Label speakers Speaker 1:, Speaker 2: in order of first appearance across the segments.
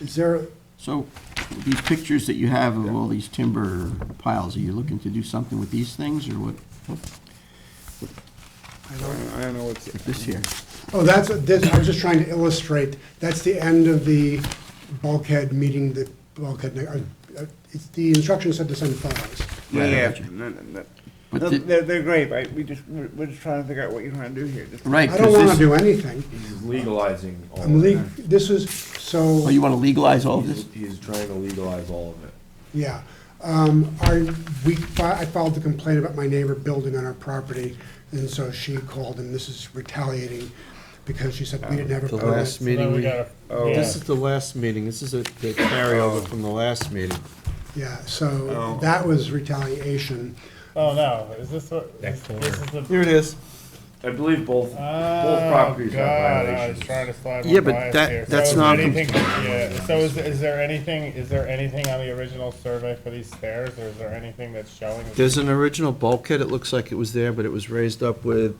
Speaker 1: Is there,
Speaker 2: So these pictures that you have of all these timber piles, are you looking to do something with these things or what?
Speaker 1: I don't,
Speaker 3: I don't know what's,
Speaker 2: This here?
Speaker 1: oh, that's, this, I was just trying to illustrate, that's the end of the bulkhead meeting, the bulkhead, uh, uh, it's, the instructions said to send photos.
Speaker 2: Right, I
Speaker 3: yeah,
Speaker 2: got you.
Speaker 3: no, no, no.
Speaker 2: But
Speaker 3: No,
Speaker 2: the-
Speaker 3: they're, they're great, right, we just, we're, we're just trying to figure out what you're trying to do here. Just-
Speaker 2: Right.
Speaker 1: I don't
Speaker 2: 'cause
Speaker 1: wanna
Speaker 2: this-
Speaker 1: do anything.
Speaker 4: He's legalizing all
Speaker 1: I'm
Speaker 4: of
Speaker 1: le,
Speaker 4: it.
Speaker 1: this is, so,
Speaker 2: Oh, you want to legalize all of
Speaker 4: He's-
Speaker 2: this?
Speaker 4: He's trying to legalize all of it.
Speaker 1: yeah. Um, I, we, fi- I filed a complaint about my neighbor building on our property, and so she called, and this is retaliating, because she said we didn't have a
Speaker 5: The
Speaker 1: permit.
Speaker 5: last meeting, we-
Speaker 3: Oh.
Speaker 5: this is the last meeting, this is a
Speaker 6: Oh.
Speaker 5: the carryover from the last meeting.
Speaker 1: Yeah, so
Speaker 3: Oh.
Speaker 1: that was retaliation.
Speaker 6: Oh, no, is this what, this this is the.
Speaker 5: Here it is.
Speaker 4: I believe both, both
Speaker 6: Oh,
Speaker 4: properties have
Speaker 6: God, I was
Speaker 4: violations.
Speaker 6: trying to slide
Speaker 5: Yeah,
Speaker 6: one
Speaker 5: but
Speaker 6: by us
Speaker 5: that-
Speaker 6: here. So
Speaker 5: that's
Speaker 6: is
Speaker 5: not-
Speaker 6: anything- Yeah, so is, is there anything, is there anything on the original survey for these stairs, or is there anything that's showing?
Speaker 5: There's an original bulkhead, it looks like it was there, but it was raised up with
Speaker 6: Is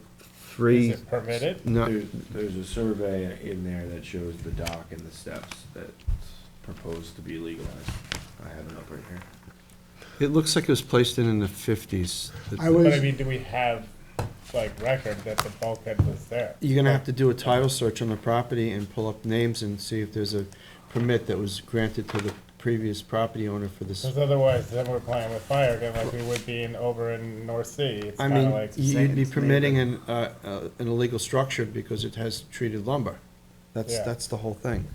Speaker 5: three,
Speaker 6: it permitted?
Speaker 5: no,
Speaker 4: There's, there's a survey in there that shows the dock and the steps that's proposed to be legalized. I have it up right here.
Speaker 5: it looks like it was placed in in the fifties.
Speaker 1: I
Speaker 6: But I
Speaker 1: was,
Speaker 6: mean, do we have, like, record that the bulkhead was there?
Speaker 5: You're gonna have to do a title search on the property and pull up names and see if there's a permit that was granted to the previous property owner for this.
Speaker 6: Because otherwise, then we're playing with fire again, like we would be in, over in North Sea. It's
Speaker 5: I
Speaker 6: kind of
Speaker 5: mean,
Speaker 6: like,
Speaker 5: you'd be
Speaker 3: it's
Speaker 5: permitting an, uh, uh, an illegal structure because it has treated lumber. That's,
Speaker 6: Yeah.
Speaker 5: that's the whole thing.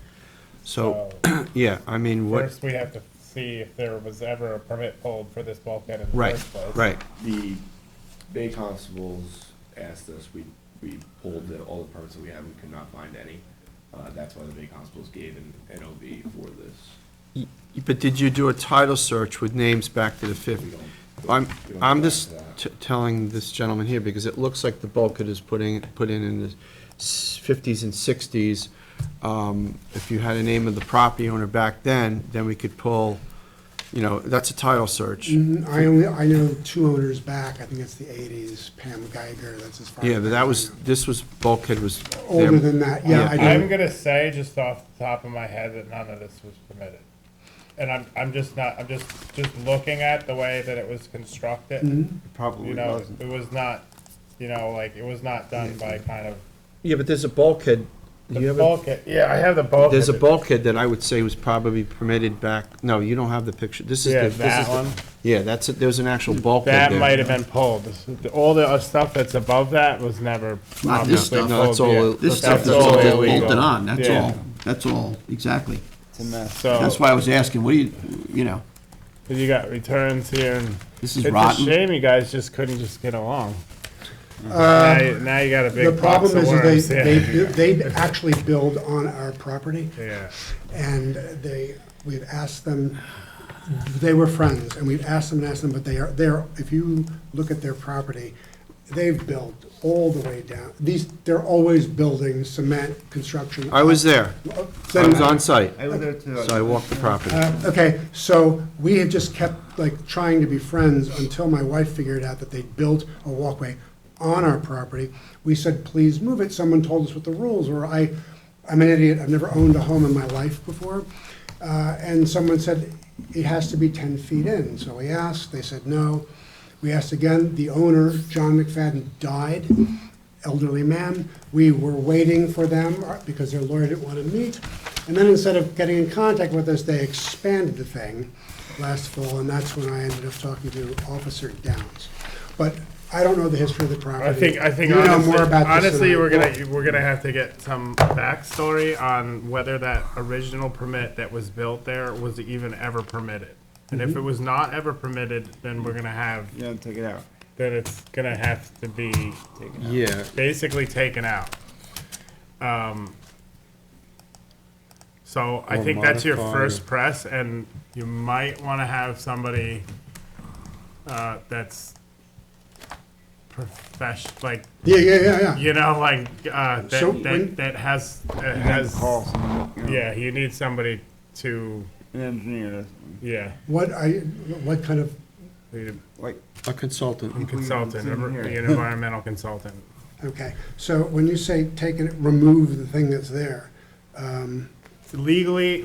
Speaker 5: So,
Speaker 6: so,
Speaker 5: yeah, I mean, what,
Speaker 6: uh, first we have to see if there was ever a permit pulled for this bulkhead in the
Speaker 5: right,
Speaker 6: first place.
Speaker 5: right.
Speaker 4: The Bay Constables asked us, we, we pulled the, all the permits that we had, we could not find any. Uh, that's why the Bay Constables gave an NOV for this.
Speaker 5: Y- But did you do a title search with names back to the
Speaker 4: We
Speaker 5: fifties?
Speaker 4: don't-
Speaker 5: I'm,
Speaker 4: we don't
Speaker 5: I'm
Speaker 4: go back
Speaker 5: just
Speaker 4: to that.
Speaker 5: t- telling this gentleman here, because it looks like the bulkhead is putting, put in in the fifties and sixties. Um, If you had a name of the property owner back then, then we could pull, you know, that's a title search.
Speaker 1: I only, I know two owners back, I think it's the eighties, Pam Geiger, that's as far.
Speaker 5: Yeah,
Speaker 1: as
Speaker 5: but
Speaker 1: I
Speaker 5: that was,
Speaker 1: know.
Speaker 5: this was, bulkhead was. there.
Speaker 1: Older than that, yeah,
Speaker 5: Yeah.
Speaker 1: I
Speaker 6: I'm
Speaker 1: do,
Speaker 6: gonna say just off the top of my head that none of this was permitted. And I'm, I'm just not, I'm just, just looking at the way that it was constructed.
Speaker 5: Probably
Speaker 6: You know, it was not, you know, like, it was not done by kind of,
Speaker 5: Yeah, but there's a bulkhead. Do you
Speaker 6: the
Speaker 5: have a,
Speaker 6: bulkhead, yeah, I have the bulkhead.
Speaker 5: there's a bulkhead that I would say was probably permitted back, no, you don't have the picture. This is. the-
Speaker 6: Yeah,
Speaker 5: this is
Speaker 6: that
Speaker 5: the-
Speaker 6: one.
Speaker 5: Yeah, that's, it. there's an actual bulkhead
Speaker 6: That
Speaker 5: there.
Speaker 6: might have been pulled. This is- the- All the uh, stuff that's above that was never
Speaker 2: Not this
Speaker 6: obviously
Speaker 2: stuff.
Speaker 6: pulled.
Speaker 2: No,
Speaker 5: that's all-
Speaker 6: yet.
Speaker 2: This
Speaker 5: That's
Speaker 2: stuff that's all
Speaker 5: all
Speaker 6: illegal.
Speaker 2: bolted on, that's
Speaker 6: Yeah.
Speaker 2: all. That's all, exactly.
Speaker 3: It's a mess.
Speaker 6: So,
Speaker 2: That's why I was asking, what do you, you know,
Speaker 6: you got returns here and.
Speaker 2: this is
Speaker 6: It's a
Speaker 2: rotten.
Speaker 6: shame you guys just couldn't just get along.
Speaker 1: Uh,
Speaker 6: Now- Now you got a
Speaker 1: the
Speaker 6: big box
Speaker 1: problem
Speaker 6: of
Speaker 1: is
Speaker 6: worms.
Speaker 1: that they, they, they actually build on our property,
Speaker 6: Yeah.
Speaker 1: and they, we've asked them, they were friends, and we've asked them and asked them, but they are, they're, if you look at their property, they've built all the way down, these, they're always building cement, construction.
Speaker 5: I was there. I was on site,
Speaker 3: I was there too.
Speaker 5: so I walked the property.
Speaker 1: Uh, Okay, so we had just kept like trying to be friends until my wife figured out that they'd built a walkway on our property. We said, please move it. Someone told us what the rules were. I, I'm an idiot. I've never owned a home in my life before. Uh, and someone said, it has to be ten feet in. So we asked, they said no. We asked again, the owner, John McFadden, died, elderly man. We were waiting for them uh, because their lawyer didn't want to meet. And then instead of getting in contact with us, they expanded the thing last fall, and that's when I ended up talking to Officer Downs. But I don't know the history of the property.
Speaker 6: I think, I think
Speaker 1: You know
Speaker 6: honestly,
Speaker 1: more about this than
Speaker 6: honestly,
Speaker 1: I
Speaker 6: we're
Speaker 1: do.
Speaker 6: gonna, we're gonna have to get some backstory on whether that original permit that was built there was even ever permitted. And
Speaker 1: Mm-hmm.
Speaker 6: if it was not ever permitted, then we're gonna have,
Speaker 3: Yeah, take it out.
Speaker 6: then it's gonna have to be
Speaker 5: Yeah,
Speaker 6: basically taken out. Um, So I
Speaker 5: Or
Speaker 6: think that's your
Speaker 5: modified.
Speaker 6: first press, and you might want to have somebody uh, that's professional, like,
Speaker 1: Yeah, yeah, yeah, yeah.
Speaker 6: you know, like, uh,
Speaker 1: So
Speaker 6: that,
Speaker 1: when-
Speaker 6: that that has, that
Speaker 3: Has
Speaker 6: has,
Speaker 3: call someone, you know,
Speaker 6: yeah, you need somebody to,
Speaker 3: An engineer,
Speaker 6: yeah,
Speaker 1: What I, what kind of,
Speaker 6: you-
Speaker 3: like,
Speaker 5: a consultant.
Speaker 6: consultant,
Speaker 3: in here.
Speaker 6: an environmental consultant.
Speaker 1: okay, so when you say take it, remove the thing that's there, um,
Speaker 6: Legally,